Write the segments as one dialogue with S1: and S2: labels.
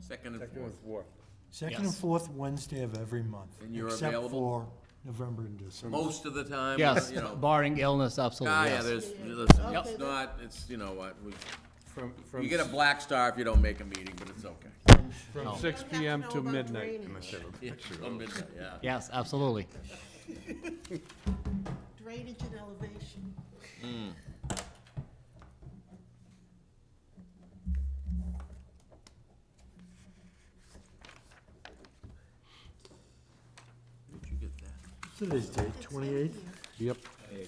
S1: Second and
S2: Second and
S1: fourth.
S2: fourth.
S3: Second and
S4: Yes.
S3: fourth Wednesday of every month.
S1: And you're
S3: Except
S1: available?
S3: for November and December.
S1: Most of the time,
S4: Yes,
S1: you know,
S4: barring illness,
S1: ah,
S4: absolutely,
S1: yeah,
S4: yes.
S1: there's, listen,
S4: Yep.
S1: it's not, it's, you know, what, we-
S2: From, from.
S1: you get a black star if you don't make a meeting, but it's okay.
S2: From six P M to midnight.
S1: Yeah, till midnight, yeah.
S4: Yes, absolutely.
S5: Drainage and elevation.
S1: Where'd you get that?
S3: Today's date,
S5: It's in
S3: twenty-eighth?
S5: here.
S6: Yep,
S5: Yeah,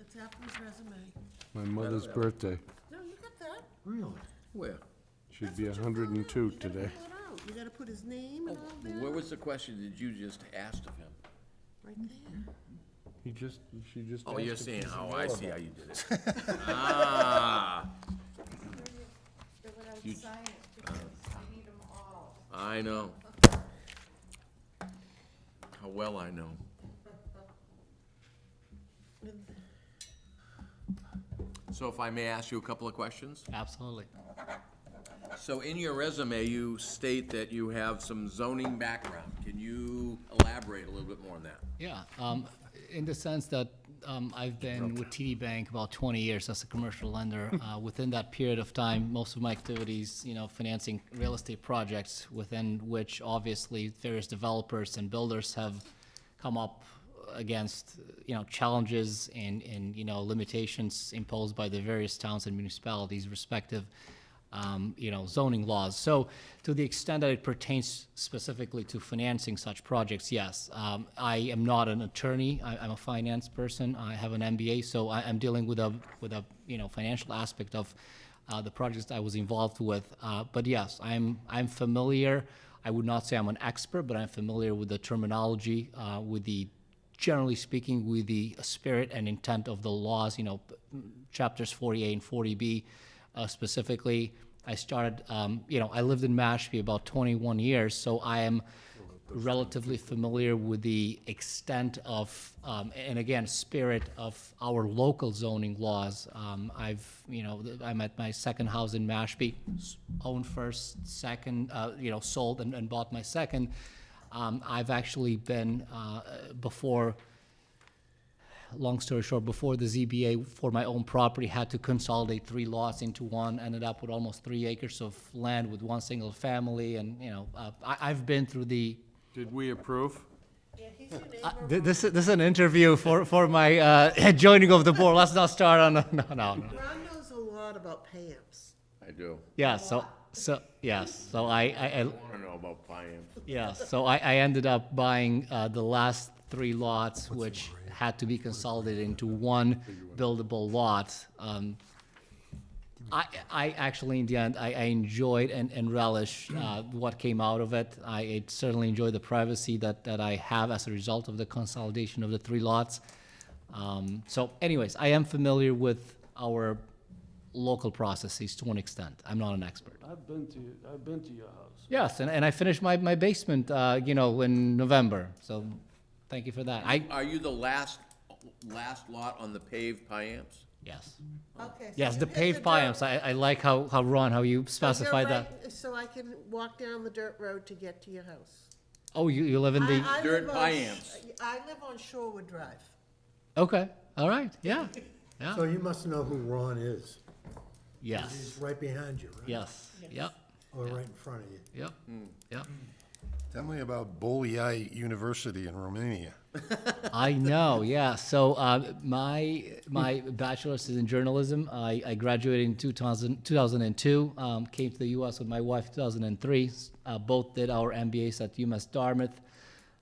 S5: it's Apple's resume.
S6: my mother's birthday.
S5: No, you got that.
S3: Really?
S1: Where?
S6: She'd
S5: That's
S6: be
S5: what you
S6: hundred and
S5: filled
S6: two
S5: out. You gotta
S6: today.
S5: fill it out. You gotta put his name and all that,
S1: Where was the question that you just asked of him?
S5: right there.
S6: He just, she just.
S1: Oh, you're saying, oh, I see how you did it.
S5: Fill it out, sign it, because I need them all.
S1: I know. How well I know. So if I may ask you a couple of questions?
S4: Absolutely.
S1: So in your resume, you state that you have some zoning background. Can you elaborate a little bit more on that?
S4: Yeah, um, in the sense that, um, I've been with TD Bank about twenty years as a commercial lender. Uh, within that period of time, most of my activities, you know, financing real estate projects within which obviously various developers and builders have come up against, you know, challenges and, and, you know, limitations imposed by the various towns and municipalities respective, um, you know, zoning laws. So to the extent that it pertains specifically to financing such projects, yes. Um, I am not an attorney. I, I'm a finance person. I have an MBA, so I, I'm dealing with a, with a, you know, financial aspect of, uh, the projects I was involved with. Uh, but yes, I'm, I'm familiar. I would not say I'm an expert, but I'm familiar with the terminology, uh, with the generally speaking, with the spirit and intent of the laws, you know, p- m- chapters 40A and 40B uh, specifically. I started, um, you know, I lived in Mashpee about 21 years, so I am relatively familiar with the extent of, um, and again, spirit of our local zoning laws. Um, I've, you know, th- I'm at my second house in Mashpee, s- owned first, second, uh, you know, sold and, and bought my second. Um, I've actually been, uh, before long story short, before the ZBA for my own property had to consolidate three lots into one, ended up with almost three acres of land with one single family, and, you know, uh, I, I've been through the,
S2: Did we approve?
S5: Yeah, he's your
S4: uh,
S5: neighbor.
S4: th- this, is- this is an interview for, for my, uh, joining of the board, let's not start on, no, no, no.
S5: Ron knows a lot about PAMPs.
S1: I do.
S4: Yeah, so, so, yes, so I, I, I-
S1: I want to know about Payam.
S4: Yeah, so I, I ended up buying uh, the last three lots, which had to be consolidated into one buildable lot. Um, I, I actually, in the end, I, I enjoyed and, and relish uh, what came out of it. I it certainly enjoy the privacy that, that I have as a result of the consolidation of the three lots. Um, so anyways, I am familiar with our local processes to an extent. I'm not an expert.
S7: I've been to, I've been to your house.
S4: Yes, and, and I finished my, my basement, uh, you know, in November, so thank you for that. I,
S1: Are you the last, last lot on the paved Payams?
S4: yes.
S5: Okay. so
S4: Yes,
S5: you
S4: the
S5: hit
S4: paved
S5: dirt.
S4: piles, I, I like how, how Ron, how you
S5: So you're
S4: specified that.
S5: right- So I can walk down the dirt road to get to your house.
S4: Oh, you, you live in the,
S5: I- I
S1: Dirt
S5: live on-
S1: biams.
S5: I live on Shorewood Drive.
S4: okay, all right, yeah, yeah,
S3: So you must know who Ron is.
S4: yes,
S3: He's right behind you, right?
S4: yes, yep,
S3: Or right in front of you.
S4: yep, yep.
S8: Tell me about Bolyai University in Romania.
S4: I know, yeah. So uh, my my bachelor's is in journalism. I, I graduated in 2000, 2002, um, came to the U.S. with my wife in 2003. Uh, both did our MBAs at UMass Dartmouth.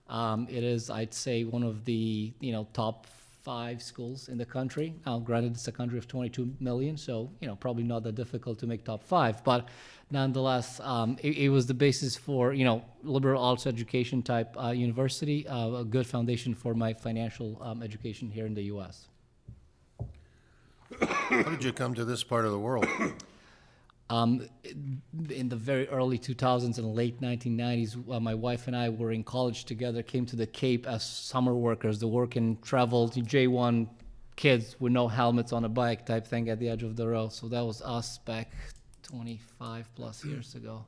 S4: Um, it is, I'd say, one of the you know top five schools in the country. Now, granted, it's a country of 22 million, so you know probably not that difficult to make top five. But nonetheless, um, it, it was the basis for you know liberal arts education type uh, university, uh, a good foundation for my financial um, education here in the U.S.
S8: How did you come to this part of the world?
S4: Um, in the very early 2000s and late 1990s, uh, my wife and I were in college together, came to the Cape as summer workers, the work and travel, the J1 kids with no helmets on a bike type thing at the edge of the road. So that was us back 25 plus years ago.